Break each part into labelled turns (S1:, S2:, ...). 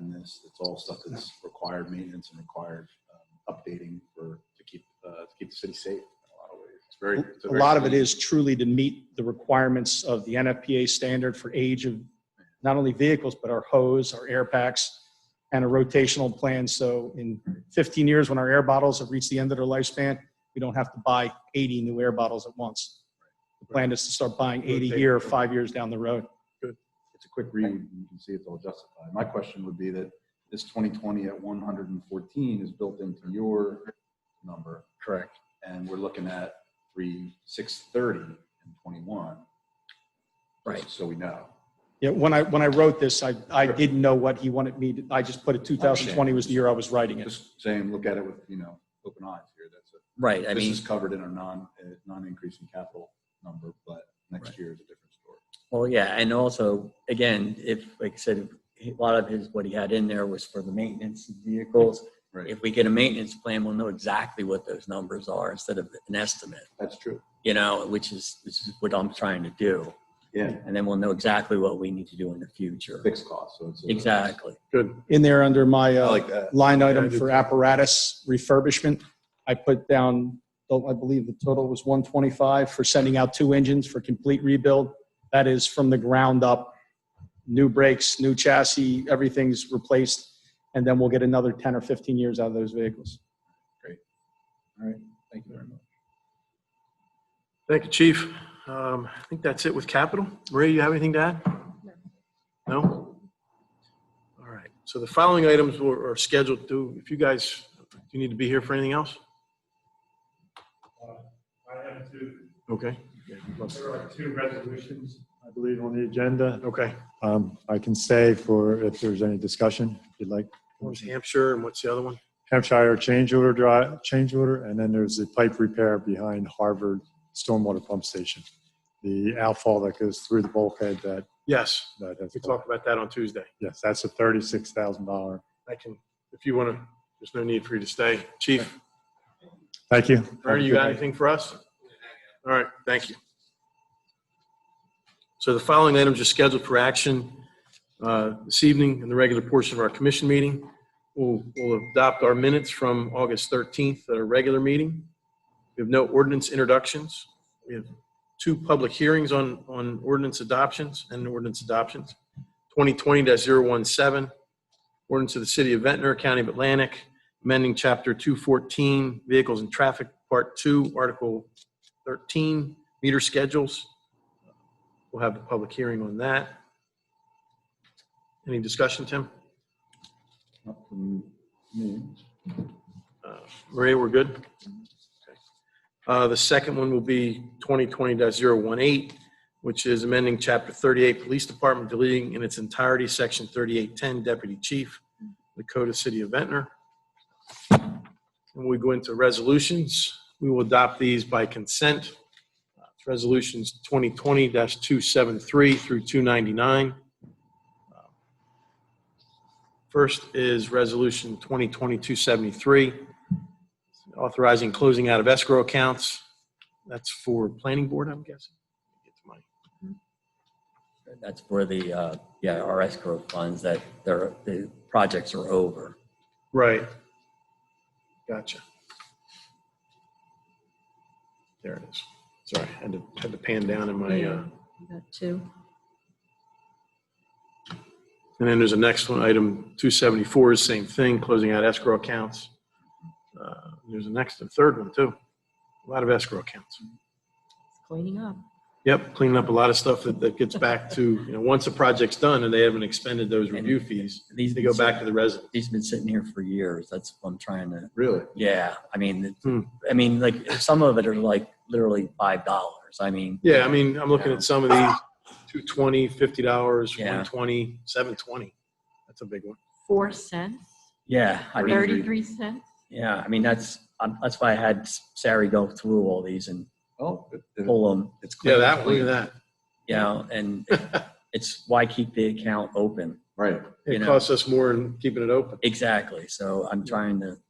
S1: maintenance. It's all stuff that's required maintenance and required um, updating for, to keep, uh, to keep the city safe in a lot of ways. It's very. it's
S2: A
S1: very-
S2: lot of it is truly to meet the requirements of the NFPA standard for age of not only vehicles, but our hose, our air packs, and a rotational plan. So in 15 years, when our air bottles have reached the end of their lifespan, we don't have to buy 80 new air bottles at once. The plan is to start buying 80 here, five years down the road.
S1: It's a quick read. and You can see it's all justified. My question would be that this 2020 at 114 is built into your number.
S3: Correct.
S1: and we're looking at three, six thirty and twenty-one.
S3: Right.
S1: Just So we know.
S2: Yeah, when I, when I wrote this, I, I didn't know what he wanted me to, I just put it 2020 was the year I was writing it.
S1: Just saying, look at it with, you know, open eyes here. That's it.
S3: Right, I
S1: This
S3: mean,
S1: is covered in our non, uh, non-increasing capital number, but next
S3: Right.
S1: year is a different story.
S3: well, yeah, and also, again, if, like I said, a lot of his, what he had in there was for the maintenance of vehicles.
S1: Right,
S3: If we get a maintenance plan, we'll know exactly what those numbers are instead of an estimate,
S1: that's true.
S3: you know, which is, this is what I'm trying to do.
S1: Yeah,
S3: And then we'll know exactly what we need to do in the future.
S1: fixed cost, so it's. a-
S3: Exactly.
S4: Good.
S2: In there under my,
S1: I
S2: uh,
S1: like that.
S2: line
S4: Yeah, I
S2: item
S4: did
S2: for
S4: too.
S2: apparatus refurbishment. I put down, I believe the total was 125 for sending out two engines for complete rebuild. That is from the ground up, new brakes, new chassis, everything's replaced. And then we'll get another 10 or 15 years out of those vehicles.
S1: All right, thank you very much.
S4: Thank you, Chief. Um, I think that's it with capital. Maria, you have anything to add? No? All right. So the following items were, are scheduled to, if you guys, do you need to be here for anything else?
S5: Uh, I have two,
S4: Okay.
S5: there are two resolutions, I believe, on the agenda.
S4: Okay.
S5: Um, I can say for, if there's any discussion, if you'd like.
S4: One's Hampshire and what's the other one?
S5: Hampshire change order drive, change order, and then there's the pipe repair behind Harvard Stormwater Pump Station. The outfall that goes through the bulkhead that,
S4: Yes.
S5: that has.
S4: We talked about that on Tuesday.
S5: Yes, that's a thirty-six thousand dollar.
S4: I can, if you want to, there's no need for you to stay. Chief,
S5: Thank you.
S4: Ernie, you got anything for us? All right, thank you. So the following items are scheduled for action uh, this evening in the regular portion of our commission meeting. We'll we'll adopt our minutes from August 13th at our regular meeting. We have no ordinance introductions. We have two public hearings on, on ordinance adoptions and ordinance adoptions. 2020-017, ordinance of the City of Ventnor, County of Atlantic, amending Chapter 214, Vehicles and Traffic, Part 2, Article 13, meter schedules. We'll have the public hearing on that. Any discussion, Tim?
S1: Not from me.
S4: Uh, Maria, we're good? Okay. Uh, The second one will be 2020-018, which is amending Chapter 38, Police Department, deleting in its entirety Section 3810, Deputy Chief, the Code of City of Ventnor. When we go into resolutions, we will adopt these by consent. Uh, it's Resolutions 2020-273 through 299. First is Resolution 2020-273, authorizing closing out of escrow accounts. That's for planning board, I'm guessing. Get the money.
S3: That's for the, uh, yeah, our escrow funds that they're, the projects are over.
S4: Right. Gotcha. There it is. Sorry, had to, had to pan down in my, uh,
S6: Got two.
S4: and then there's a next one, item 274 is same thing, closing out escrow accounts. Uh, There's a next, a third one too. A lot of escrow accounts.
S6: Cleaning up.
S4: Yep, cleaning up a lot of stuff that, that gets back to, you know, once a project's done and they haven't expended those review fees,
S3: These
S4: they go back to the resident.
S3: These have been sitting here for years. That's what I'm trying to
S1: Really?
S3: Yeah, I mean, it-
S4: Hmm.
S3: I mean, like some of it are like literally five dollars. I mean,
S4: Yeah, I mean, I'm looking at some of these, two twenty, fifty dollars,
S3: Yeah.
S4: one twenty, seven twenty. That's a big one.
S6: Four cents,
S3: yeah, I mean,
S6: thirty-three cents.
S3: yeah, I mean that's um, that's why I had Sari go through all these and
S1: Oh, it- it-
S3: pull them,
S1: it's. clean.
S4: Yeah, that, look at that.
S3: you know, and it's why keep the account open.
S1: Right.
S3: You
S4: It
S3: know.
S4: costs us more in keeping it open.
S3: Exactly. So I'm trying to, and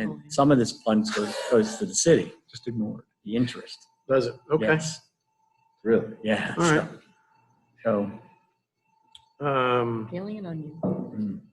S6: Unbelievable.
S3: some of this funds goes, goes to the city,
S1: Just ignore it.
S3: the interest.
S4: Does it? Okay.
S3: Yes.
S1: Really?
S3: Yeah.
S4: All right.
S3: So
S4: Um,
S6: Alien onion.
S3: mm,